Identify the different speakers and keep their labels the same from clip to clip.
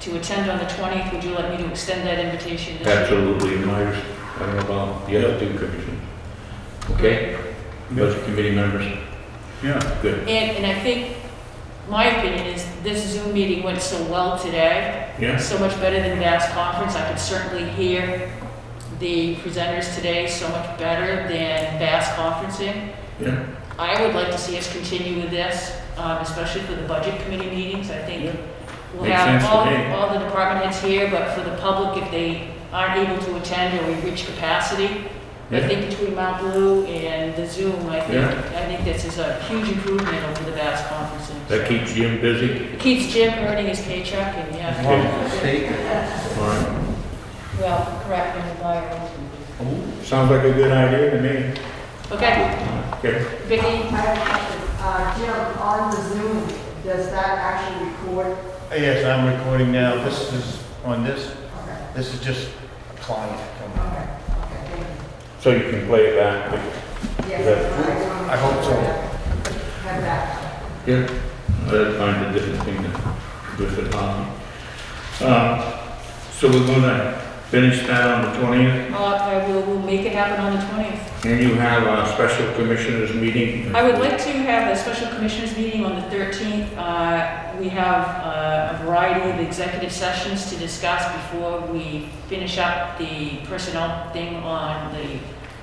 Speaker 1: to attend on the 20th. Would you like me to extend that invitation? this year?
Speaker 2: Absolutely, Myers, I don't know about the other two commissions. Okay? Budget committee members,
Speaker 3: Yeah,
Speaker 2: good.
Speaker 1: And, and I think, my opinion is, this Zoom meeting went so well today,
Speaker 3: yeah.
Speaker 1: so much better than last conference. I could certainly hear the presenters today so much better than Bass conferencing.
Speaker 3: Yeah.
Speaker 1: I would like to see us continue with this, um, especially for the budget committee meetings. I think
Speaker 3: Yeah.
Speaker 1: we'll
Speaker 3: Makes
Speaker 1: have
Speaker 3: sense to
Speaker 1: all,
Speaker 3: me.
Speaker 1: all the department heads here, but for the public, if they aren't able to attend or we reach capacity, I
Speaker 3: Yeah.
Speaker 1: think between Mount Blue and the Zoom, I think,
Speaker 3: Yeah.
Speaker 1: I think this is a huge improvement over the last conferencing.
Speaker 2: That keeps Jim busy?
Speaker 1: It keeps Jim earning his paycheck and, yeah,
Speaker 2: All right.
Speaker 1: well, correct me if I'm wrong.
Speaker 2: Sounds like a good idea to me.
Speaker 1: Okay,
Speaker 2: Okay.
Speaker 1: Vicky,
Speaker 4: I have a question. Uh, Jim, on the Zoom, does that actually record?
Speaker 5: Yes, I'm recording now. This is on this.
Speaker 4: Okay,
Speaker 5: This is just a client. coming.
Speaker 4: okay, okay, thank you.
Speaker 2: So you can play it back.
Speaker 4: Yes. wanna
Speaker 5: I hope so.
Speaker 4: Have that.
Speaker 2: Yeah. That's kind of different thing than with the Tom. Um, So we're gonna finish that on the twentieth,
Speaker 1: uh, I will, we'll make it happen on the twentieth.
Speaker 2: and you have a special commissioners meeting.
Speaker 1: I would like to have a special commissioners meeting on the thirteenth. Uh, we have uh, a variety of executive sessions to discuss before we finish up the personnel thing on the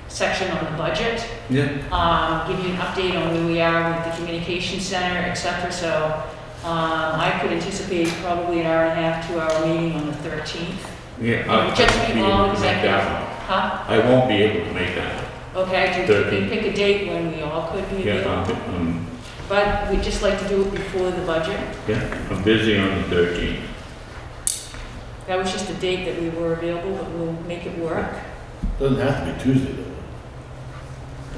Speaker 1: section on the budget.
Speaker 2: Yeah.
Speaker 1: um, give you an update on where we are with the communication center, et cetera. So um, I could anticipate probably an hour and a half, two-hour meeting on the 13th.
Speaker 2: Yeah. I- I
Speaker 1: Just to
Speaker 2: won't be
Speaker 1: be
Speaker 2: able
Speaker 1: all
Speaker 2: to make
Speaker 1: executive.
Speaker 2: that one.
Speaker 1: Huh?
Speaker 2: I won't be able to make that. one.
Speaker 1: Okay, do you think we
Speaker 2: 13th.
Speaker 1: pick a date when we all could be
Speaker 2: Yeah,
Speaker 1: available?
Speaker 2: I'm- I'm,
Speaker 1: But we'd just like to do it before the budget.
Speaker 2: yeah, I'm busy on the thirteenth.
Speaker 1: That was just a date that we were available, but we'll make it work.
Speaker 3: Doesn't have to be Tuesday though.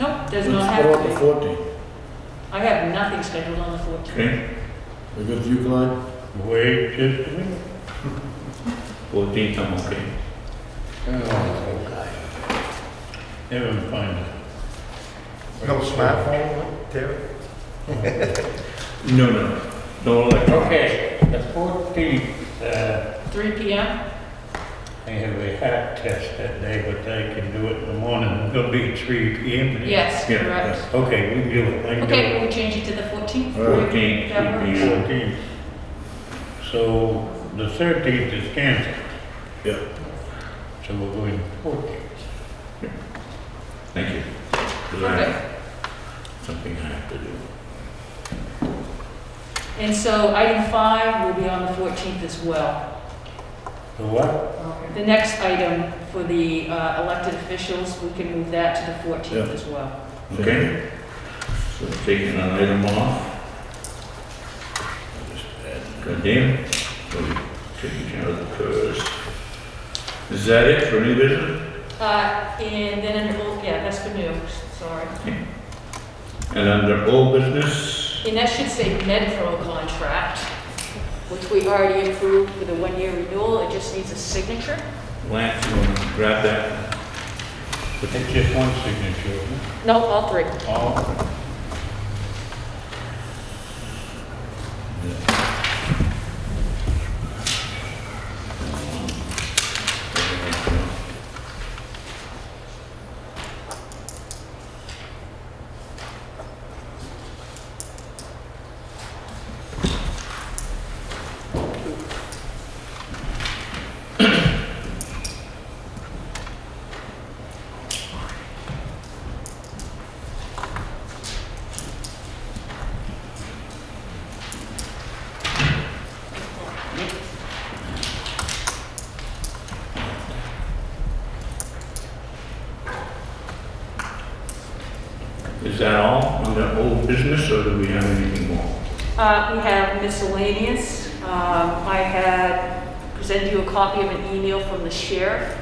Speaker 1: Nope, does
Speaker 3: Let's
Speaker 1: not
Speaker 3: go
Speaker 1: have
Speaker 3: up
Speaker 1: to be.
Speaker 3: Fourteen.
Speaker 1: I have nothing scheduled on the 14th.
Speaker 2: Okay,
Speaker 3: We good with you, Clyde?
Speaker 2: wait just a minute. Fourteenth, I'm okay.
Speaker 3: Everyone fine. with
Speaker 5: No smartphone, Terry?
Speaker 2: No, no, no oh, electronics.
Speaker 6: Okay, the fourteenth, uh,
Speaker 1: 3
Speaker 2: Mm-hmm.
Speaker 1: PM?
Speaker 6: I have a hat test that day, but I can do it in the morning. It'll be three P M.
Speaker 1: Yes,
Speaker 2: Yeah,
Speaker 1: correct.
Speaker 6: Okay, we can do it. I can do
Speaker 1: Okay,
Speaker 6: it.
Speaker 1: we'll change it to the 14th.
Speaker 2: Fourteenth,
Speaker 1: That works.
Speaker 6: Fourteenth. So the thirteenth is canceled.
Speaker 3: Yeah.
Speaker 6: So we're going fourteenth.
Speaker 2: thank you. 'Cause I have Something I have to do.
Speaker 1: And so item five will be on the 14th as well.
Speaker 6: The what?
Speaker 4: Okay.
Speaker 1: The next item for the uh, elected officials, we can move that to the 14th
Speaker 3: Yeah.
Speaker 1: as well.
Speaker 2: Okay. So taking an item off. Goddamn. So we Taking care of the first. Is that it for new business?
Speaker 1: Uh, And then, under old- yeah, that's for new, sorry.
Speaker 2: And under old business,
Speaker 1: And that should say Medpro contract, which we already approved for the one-year renewal. It just needs a signature.
Speaker 2: Lance, you want to grab that?
Speaker 6: It's just one signature.
Speaker 1: No, all three.
Speaker 6: Oh,
Speaker 2: Is that all under old business or do we have anything more?
Speaker 1: Uh, We have miscellaneous. Um, I had presented you a copy of an email from the sheriff.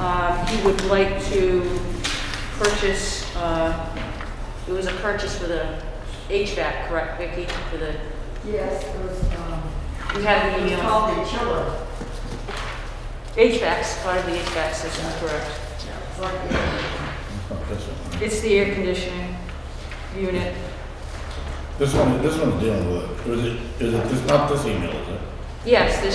Speaker 1: Um, He would like to purchase, uh, it was a purchase for the HVAC, correct, Vicki? For the,
Speaker 4: Yes, it was, um,
Speaker 1: you had
Speaker 4: it
Speaker 1: the
Speaker 4: was
Speaker 1: email.
Speaker 4: called the chiller.
Speaker 1: HVAC's part of the HVAC system, correct?
Speaker 4: It's like, yeah,
Speaker 3: This one.
Speaker 1: It's the air conditioning unit.
Speaker 3: This one, this one's dealing with, it. Or is it, is it, it's not this email, is it?
Speaker 1: Yes, the